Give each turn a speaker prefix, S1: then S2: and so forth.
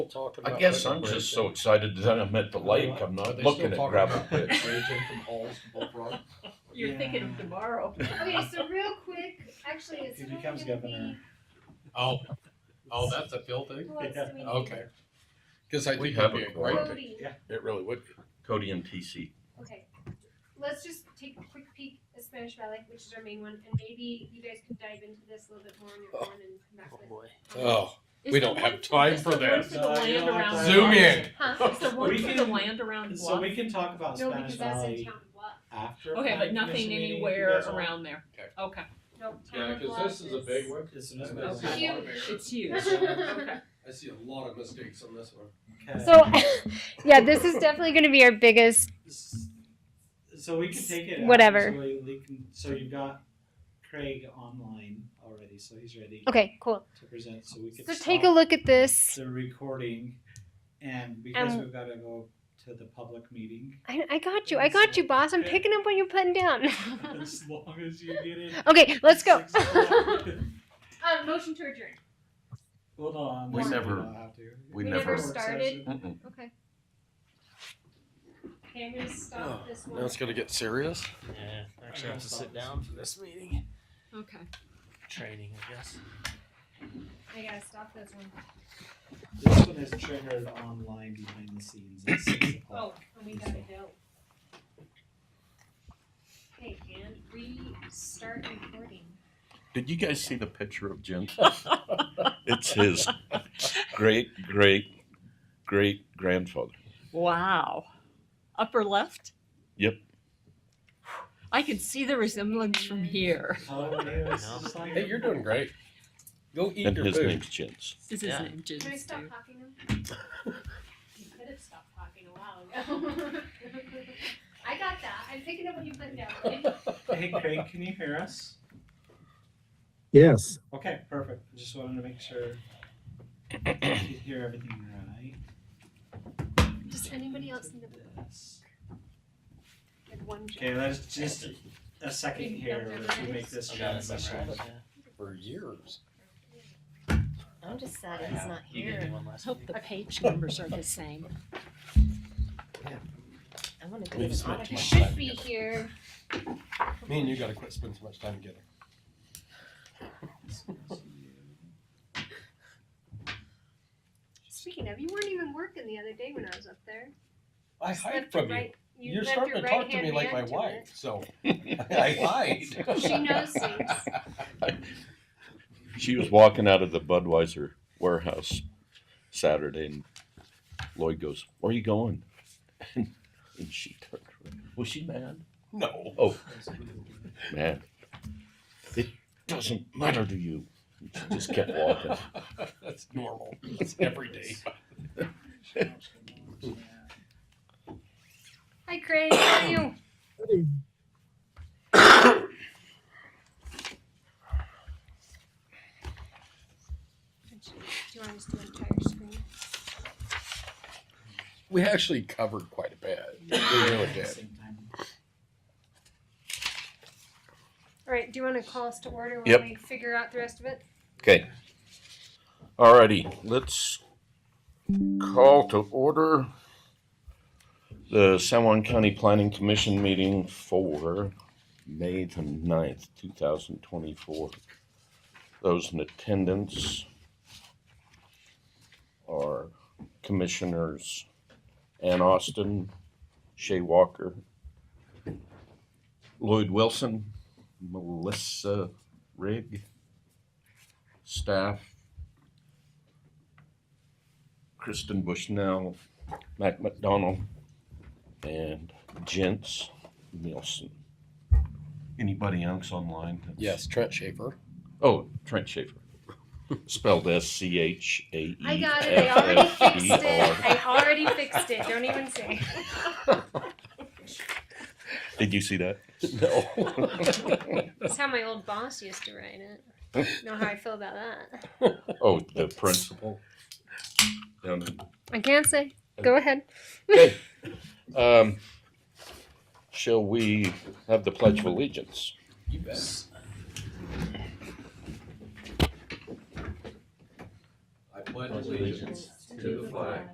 S1: talking
S2: I
S1: about.
S2: guess
S1: liquid
S2: I'm
S1: bridge
S2: just so
S1: and-
S2: excited that I'm at the lake, I'm
S1: Are
S2: not
S1: they
S2: looking
S1: still
S2: at
S1: talking
S2: gravel
S1: about liquid
S2: pits.
S1: Bridge in from Halls to Bull Run?
S3: You're thinking of tomorrow.
S4: Okay, so real quick, actually, it's
S1: If he
S4: not
S1: becomes
S4: gonna
S1: governor.
S4: be,
S5: Oh, oh, that's a Phil thing?
S4: who else do we need?
S5: Okay. Cause I
S2: We
S5: think
S2: have
S5: that'd
S2: a
S5: be a
S2: quorum.
S5: great,
S4: Cody,
S2: It really would. Cody and TC.
S4: okay. Let's just take a quick peek at Spanish Valley, which is our main one, and maybe you guys can dive into this a little bit more on your own and come back with.
S5: oh, we don't have time for
S3: that.
S5: this.
S3: The one
S1: No,
S3: for
S1: you
S3: the land
S1: don't have
S3: around.
S1: to.
S5: Zoom in.
S3: Huh? Is there one
S1: We
S3: for the
S1: can-
S3: land around
S1: So
S3: Bluff?
S1: we can talk about
S4: No,
S1: Spanish
S4: because that's in
S1: Valley
S4: town bluff,
S1: after.
S3: Okay,
S1: planning
S3: but nothing
S1: commission meeting, if you
S3: anywhere
S1: guys want.
S3: around there.
S5: Okay.
S3: Okay,
S4: no, town bluff is.
S5: one.
S1: It's an
S5: Okay.
S1: amazing-
S4: Huge.
S3: it's huge. Okay.
S5: I see a lot of mistakes on this one.
S1: Okay.
S4: So, yeah, this is definitely gonna be our biggest
S1: So we can take it. out,
S4: Whatever.
S1: So, we, we can, so you've got Craig online already, so he's ready
S4: Okay, cool.
S1: to present. So we can
S4: So take a look at this.
S1: the recording, and because
S4: Um,
S1: we've got to go to the public meeting,
S4: I, I got you. I got you, boss. I'm picking up what you're putting down.
S1: as long as you get it.
S4: okay, let's go.
S1: six o'clock.
S4: um, motion to adjourn.
S1: Hold on.
S2: We
S1: so
S2: never-
S1: don't have to.
S2: we We never never
S4: started.
S2: Mm-mm.
S4: Okay. Okay, I'm gonna
S5: Oh,
S4: stop this one.
S5: gonna get serious?
S6: Yeah, I actually
S1: I
S6: have to
S1: guess
S6: sit
S1: that was-
S6: down for this meeting.
S3: Okay.
S6: Training, I guess.
S4: I gotta stop this one.
S1: This one is triggered online behind the scenes at six o'clock.
S4: Oh, and we gotta go. Okay, and restart recording.
S2: Did you guys see the picture of Jim? It's his great, great, great grandfather.
S3: Wow. Upper left?
S2: Yep.
S3: I can see the resemblance from here.
S1: Oh, yeah, it's just like-
S5: Hey, you're doing great. Go eat
S2: And
S5: your
S2: his
S5: food.
S2: name's Jens.
S3: This is
S6: Yeah.
S3: name, Jim.
S4: Can I stop talking now? you could have stopped talking a while ago. I got that. I'm picking up what you put down.
S1: Hey, Craig, can you hear us?
S7: Yes,
S1: Okay, perfect. I Just wanted to make sure you could hear everything right.
S4: Does anybody else need a
S1: Yes.
S4: like one job?
S1: Okay, let's just a second here to make this
S6: I got it
S1: transition.
S6: memorized, yeah.
S5: For years.
S8: I'm just sad he's not
S6: You gave me
S8: here.
S6: one last
S3: Hope
S6: week.
S3: the page numbers are the same.
S8: I want to go
S5: We've
S8: to
S5: spent
S8: audit.
S4: You
S5: much
S4: should
S5: time
S4: be
S5: together.
S4: here.
S5: Me and you gotta quit spending so much time together.
S4: Speaking of, you weren't even working the other day when I was up there.
S5: I
S4: Just
S5: hide
S4: left your
S5: from you.
S4: right- you
S5: You're
S4: left
S5: starting to
S4: your
S5: talk to
S4: right
S5: me like
S4: hand
S5: my
S4: man to
S5: wife, so I hide.
S4: She knows things.
S2: She was walking out of the Budweiser warehouse Saturday, and Lloyd goes, "Where are you going?" And, she turned. around. Was she mad?
S5: No.
S2: Oh, man, it doesn't matter to you. And she just kept walking.
S5: That's normal. That's every day.
S4: Hi, Craig. How are you? Do you want us to do an entire screen?
S5: We actually covered quite a bit. We really did.
S1: Same time.
S4: All right. Do you want to call us to order while
S2: Yep.
S4: we figure out the rest of it?
S2: Okay. Alrighty, let's call to order the San Juan County Planning Commission meeting for May the ninth, two thousand twenty-four. Those in attendance are Commissioners Ann Austin, Shay Walker, Lloyd Wilson, Melissa Rigg, staff, Kristen Bushnell, Mac McDonald, and Gents Nielsen. Anybody else online? that's-
S5: Yes, Trent Schaefer.
S2: Oh, Trent Schaefer. Spelled S C H A E.
S4: I got it. I already fixed it. I already fixed it. Don't even say.
S2: Did you see that?
S5: No.
S4: That's how my old boss used to write it. Know how I feel about that?
S2: Oh, the principal. Down in
S4: I can't say. Go ahead.
S2: Okay. Um, shall we have the Pledge of Allegiance?
S5: You bet. I pledge allegiance to the flag